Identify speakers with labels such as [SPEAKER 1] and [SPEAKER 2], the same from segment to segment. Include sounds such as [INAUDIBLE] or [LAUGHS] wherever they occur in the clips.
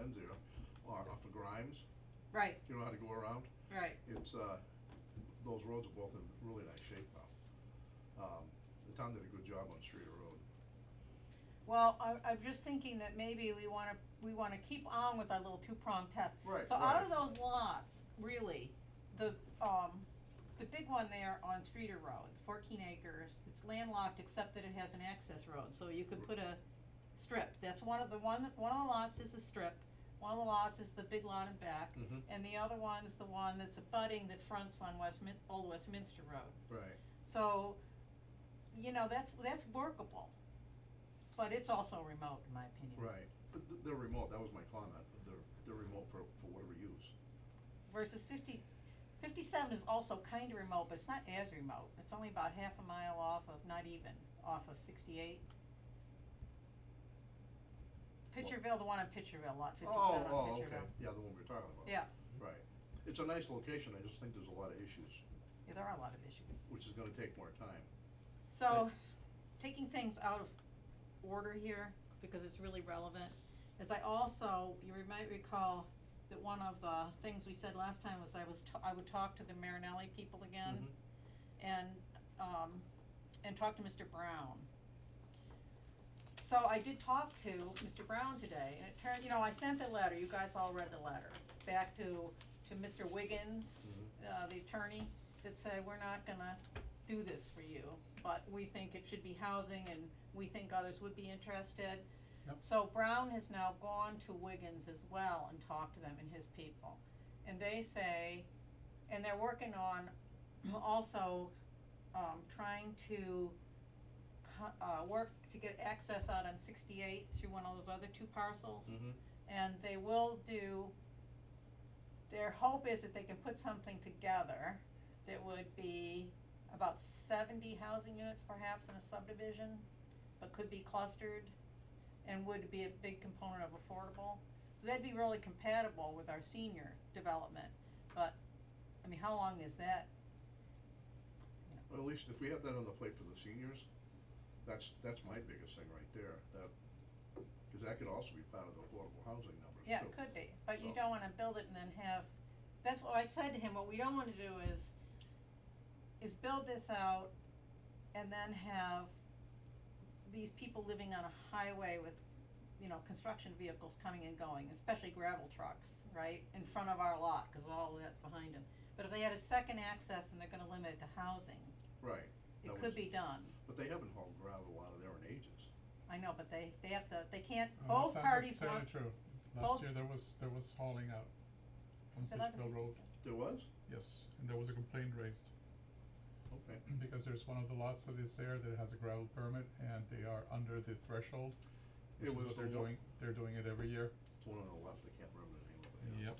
[SPEAKER 1] ends there, or off of Grimes,
[SPEAKER 2] Right,
[SPEAKER 1] you know how to go around?
[SPEAKER 2] right,
[SPEAKER 1] It's, uh, those roads are both in really nice shape now. Um, the town did a good job on Streeter Road.
[SPEAKER 2] well, I, I'm just thinking that maybe we wanna, we wanna keep on with our little two-prong test.
[SPEAKER 1] Right,
[SPEAKER 2] So out
[SPEAKER 1] right.
[SPEAKER 2] of those lots, really, the, um, the big one there on Streeter Road, fourteen acres, it's landlocked except that it has an access road, so you could put a strip, that's one of the, one, one of the lots is the strip, one of the lots is the big lot in back,
[SPEAKER 1] Mhm.
[SPEAKER 2] and the other one's the one that's abutting that fronts on Westmin, Old Westminster Road.
[SPEAKER 1] Right.
[SPEAKER 2] So, you know, that's, that's workable, but it's also remote, in my opinion.
[SPEAKER 1] Right, but th- they're remote, that was my comment, they're, they're remote for, for whatever use.
[SPEAKER 2] Versus fifty, fifty-seven is also kinda remote, but it's not as remote, it's only about half a mile off of, not even, off of sixty-eight. Pitcherville, the one on Pitcherville, lot fifty-seven on
[SPEAKER 1] Oh, oh,
[SPEAKER 2] Pitcherville.
[SPEAKER 1] okay, yeah, the one we were talking about.
[SPEAKER 2] Yeah,
[SPEAKER 1] Right, it's a nice location, I just think there's a lot of issues,
[SPEAKER 2] yeah, there are a lot of issues.
[SPEAKER 1] which is gonna take more time.
[SPEAKER 2] So, taking things out of order here, because it's really relevant, is I also, you re- might recall that one of the things we said last time was I was, t- I would talk to the Marinelli people again
[SPEAKER 1] Mhm.
[SPEAKER 2] and, um, and talk to Mr. Brown. So I did talk to Mr. Brown today, and it turned, you know, I sent the letter, you guys all read the letter, back to, to Mr. Wiggins,
[SPEAKER 1] Mm-hmm.
[SPEAKER 2] uh, the attorney, that said, we're not gonna do this for you, but we think it should be housing and we think others would be interested.
[SPEAKER 3] Yep.
[SPEAKER 2] So Brown has now gone to Wiggins as well and talked to them and his people. And they say, and they're working on also, um, trying to co- uh, work to get access out on sixty-eight through one of those other two parcels.
[SPEAKER 1] Mhm.
[SPEAKER 2] And they will do, their hope is that they can put something together that would be about seventy housing units perhaps in a subdivision, but could be clustered and would be a big component of affordable. So that'd be really compatible with our senior development, but, I mean, how long is that?
[SPEAKER 1] Well, at least if we have that on the plate for the seniors, that's, that's my biggest thing right there, that, cause that could also be part of the affordable housing numbers
[SPEAKER 2] Yeah, it
[SPEAKER 1] too.
[SPEAKER 2] could be, but you
[SPEAKER 1] So-
[SPEAKER 2] don't wanna build it and then have, that's what I said to him, what we don't wanna do is, is build this out and then have these people living on a highway with, you know, construction vehicles coming and going, especially gravel trucks, right, in front of our lot, cause all of that's behind them. But if they had a second access and they're gonna limit it to housing,
[SPEAKER 1] Right,
[SPEAKER 2] it
[SPEAKER 1] That
[SPEAKER 2] could
[SPEAKER 1] was-
[SPEAKER 2] be done,
[SPEAKER 1] but they haven't hauled gravel out of there in ages.
[SPEAKER 2] I know, but they, they have to, they can't,
[SPEAKER 3] Oh,
[SPEAKER 2] both
[SPEAKER 3] that's not
[SPEAKER 2] parties
[SPEAKER 3] necessarily
[SPEAKER 2] want,
[SPEAKER 3] True,
[SPEAKER 2] both-
[SPEAKER 3] last year there was, there was hauling out on
[SPEAKER 2] Is it not-
[SPEAKER 3] Pittsfield Road,
[SPEAKER 1] There was?
[SPEAKER 3] yes, and there was a complaint raised, [CLEARS THROAT]
[SPEAKER 1] Okay,
[SPEAKER 3] because there's one of the lots that is there that has a gravel permit, and they are under the threshold,
[SPEAKER 1] It
[SPEAKER 3] which is
[SPEAKER 1] was
[SPEAKER 3] what
[SPEAKER 1] the
[SPEAKER 3] they're
[SPEAKER 1] lo-
[SPEAKER 3] doing, they're doing it every year,
[SPEAKER 1] it's one on the left, I can't remember the name of it.
[SPEAKER 3] yep,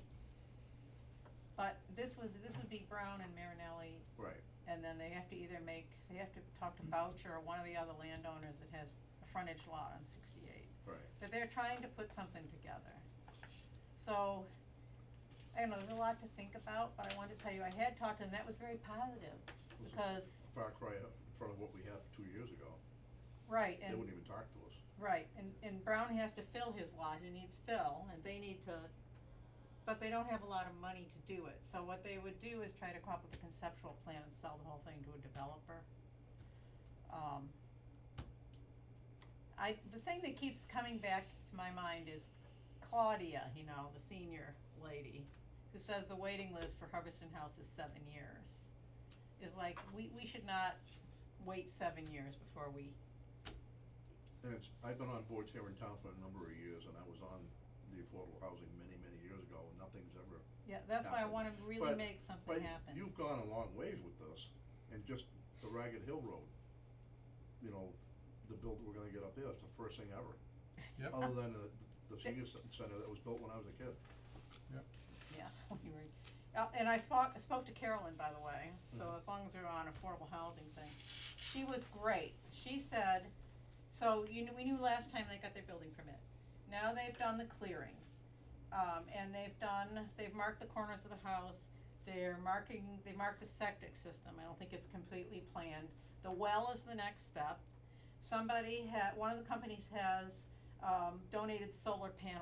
[SPEAKER 2] but this was, this would be Brown and Marinelli
[SPEAKER 1] Right,
[SPEAKER 2] And then they have to either make, they have to talk to Boucher or one of the other landowners that has a frontage lot on sixty-eight.
[SPEAKER 1] right,
[SPEAKER 2] But they're trying to put something together. So, I don't know, there's a lot to think about, but I wanted to tell you, I had talked to them, that was very positive,
[SPEAKER 1] This is-
[SPEAKER 2] because,
[SPEAKER 1] far cry up in front of what we had two years ago,
[SPEAKER 2] right,
[SPEAKER 1] they
[SPEAKER 2] and.
[SPEAKER 1] wouldn't even talk to us.
[SPEAKER 2] Right, and, and Brown has to fill his lot, he needs fill, and they need to, but they don't have a lot of money to do it, so what they would do is try to come up with a conceptual plan and sell the whole thing to a developer. Um, I, the thing that keeps coming back to my mind is Claudia, you know, the senior lady, who says the waiting list for Hubbardston House is seven years. Is like, we, we should not wait seven years before we
[SPEAKER 1] And it's, I've been on boards here in town for a number of years, and I was on the affordable housing many, many years ago, and nothing's ever.
[SPEAKER 2] Yeah, that's why I
[SPEAKER 1] happen.
[SPEAKER 2] wanna really
[SPEAKER 1] But-
[SPEAKER 2] make
[SPEAKER 1] But
[SPEAKER 2] something happen.
[SPEAKER 1] you've gone a long ways with this, and just the Ragged Hill Road, you know, the build we're gonna get up there, it's the first thing ever.
[SPEAKER 3] Yep.
[SPEAKER 1] Other than the, the senior cen- center that was built when I was a kid.
[SPEAKER 2] Yeah, [LAUGHS] we were, uh, and I spoke, spoke to Carolyn, by the way, so as long as we're on affordable housing thing. She was great. She said, so you knew, we knew last time they got their building permit. Now they've done the clearing. Um, and they've done, they've marked the corners of the house. They're marking, they marked the septic system. I don't think it's completely planned. The well is the next step. Somebody had, one of the companies has, um, donated solar panels.